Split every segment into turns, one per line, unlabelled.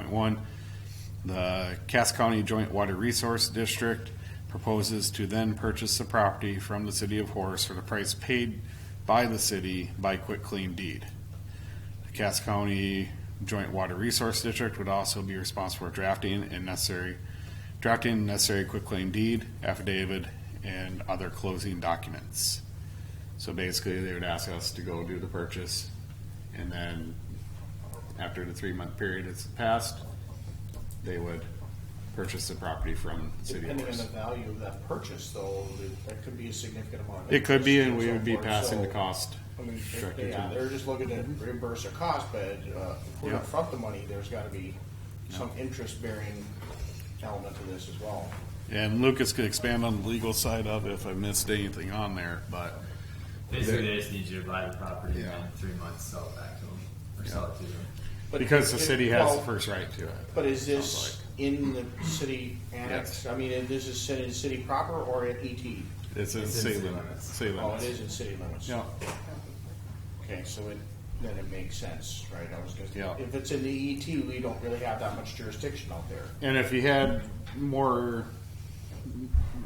one, the Cass County Joint Water Resource District proposes to then purchase the property from the city of Horace for the price paid by the city by quick claim deed. The Cass County Joint Water Resource District would also be responsible for drafting and necessary, drafting necessary quick claim deed, affidavit, and other closing documents. So basically, they would ask us to go do the purchase, and then after the three-month period has passed, they would purchase the property from the city of
Depending on the
Horace.
value of that purchase though, that- that could be a significant amount. of
It could be, and
interest
we
so
would be
forth.
passing the
So,
cost
I mean, they-
directly
they-
to
yeah,
them.
they're just looking to reimburse their cost, but, uh, if we're
Yeah.
in front the money, there's gotta be some interest bearing element to this as well.
And Lucas could expand on the legal side of it if I missed anything on there, but
Basically, they just need you to buy the property
Yeah.
and in three months sell it back to them or sell it to them.
But
because the
it-
city has the
well,
first right to it.
But is
Sounds
this in the city
Yes.
annex? I mean, is this is in the city proper or at ET?
It's in
It's in
city
city
limits,
limits.
city
Oh, it
limits.
is in city limits.
Yeah,
Okay, so it, then it makes sense, right? I was
Yeah.
gonna, if it's in the ET, we don't really have that much jurisdiction out there.
and if you had more,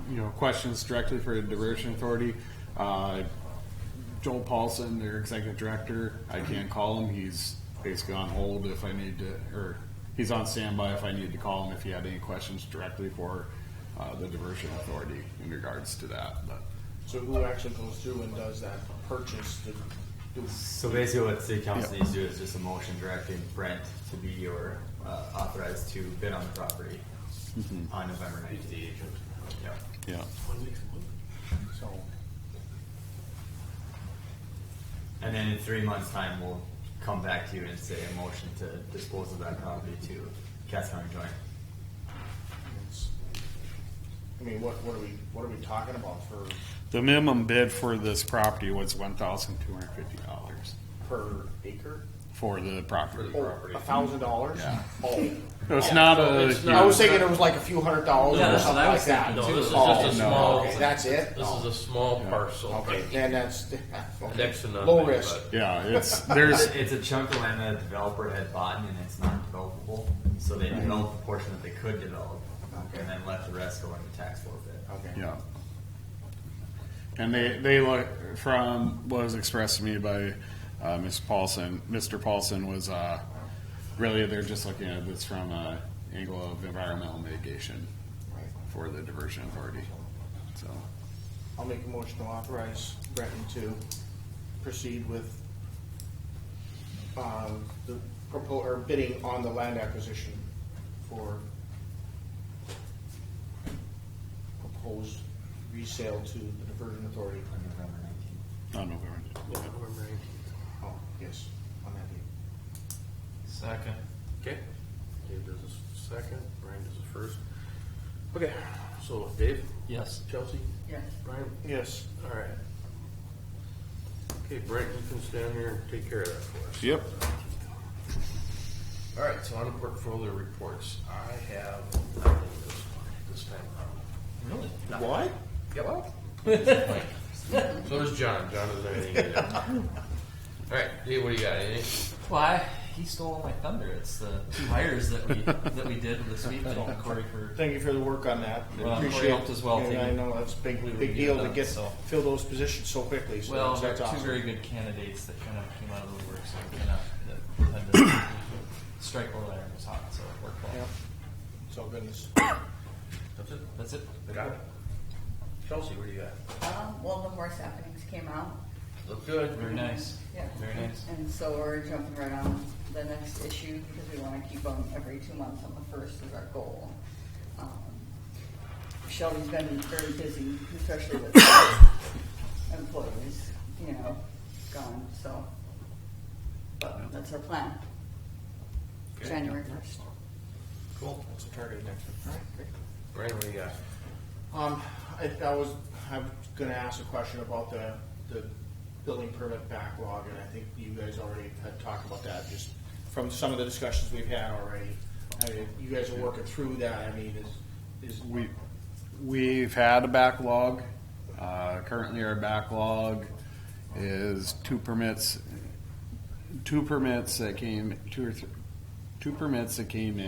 you know, questions directly for the diversion authority, uh, Joel Paulson, their executive director, I can't call him, he's basically on hold if I need to, or he's on standby if I need to call him if he had any questions directly for, uh, the diversion authority in regards to that, but.
So who actually goes through and does that purchase? Do- do-
So basically, what city council
Yeah.
needs to do is just a motion directing Brent to be or uh, authorized to bid on the property
Mm-hmm.
on November nineteenth. Yeah.
Yeah.
So,
And then in three months' time, we'll come back to you and say a motion to dispose of that property to Cass County Joint.
it's- I mean, what, what are we, what are we talking about for,
The minimum bid for this property was one thousand two hundred fifty dollars
per acre? Oh,
for the property.
A thousand dollars?
Yeah.
Oh,
It's not a.
It's
I
not-
was thinking it was like a few hundred dollars
No,
or
that's
something
what I
like
was
that.
thinking, no, this is just
Oh,
a
no,
small-
okay, That's it? Oh.
This is a small parcel.
Okay, then that's,
Next to nothing.
low risk.
but-
yeah, it's there's
It's a chunk of land that a developer had bought and it's not developable, so they developed the portion that they could develop, and then let the rest go into tax forfeit.
Okay.
yeah. And they they look from what was expressed to me by uh, Ms. Paulson. Mr. Paulson was uh, really they're just looking at this from a angle of environmental mitigation
Right.
for the diversion authority. So
I'll make a motion to authorize Breton to proceed with uh, the propo, or bidding on the land acquisition for proposed resale to the diversion authority.
On November nineteenth.
on November.
Oh, yes, on that date.
Second. Okay, Dave does a second, Brian does a first. Okay, so Dave? Yes. Chelsea? Yes. Brian?
Yes.
All right. Okay, Brent, you can stand here and take care of that for us.
Yep.
All right, so on to portfolio reports, I have nothing this, this time around.
What?
So does John, John doesn't have anything to do. All right, Dave, what do you got, anything?
Why he stole all my thunder? It's the two hires that we that we did this week. Thank you, Corey, for
Thank you for the work on that.
Well, Corey
Appreciate
helped as well,
it.
too.
I know, that's a big,
We were
big
getting
deal to
done,
get,
so.
fill those positions so quickly, so
well, they're
that's- that's
two very
awesome.
good candidates that kind of came out of the woodwork. So we kind of had to strike while the iron was hot. So it worked well.
Yeah. It's all goodness.
That's it?
That's it.
I got it. Chelsea, what do you got?
Um, well, the horse happenings came out.
Look good.
Very nice.
Yeah.
Very nice.
And so we're jumping right on the next issue because we want to keep them every two months on the first is our goal. Um, Shelby's been very busy, especially with employees, you know, gone, so. But that's our plan. January first.
Cool. That's the target next one.
Brian, what do you got?
Um, I, I was, I'm gonna ask a question about the, the building permit backlog, and I think you guys already had talked about that, just from some of the discussions we've had already. I mean, you guys are working through that, I mean, is, is,
We, we've had a backlog. Uh, currently our backlog is two permits, two permits that came, two or three, two permits that came in.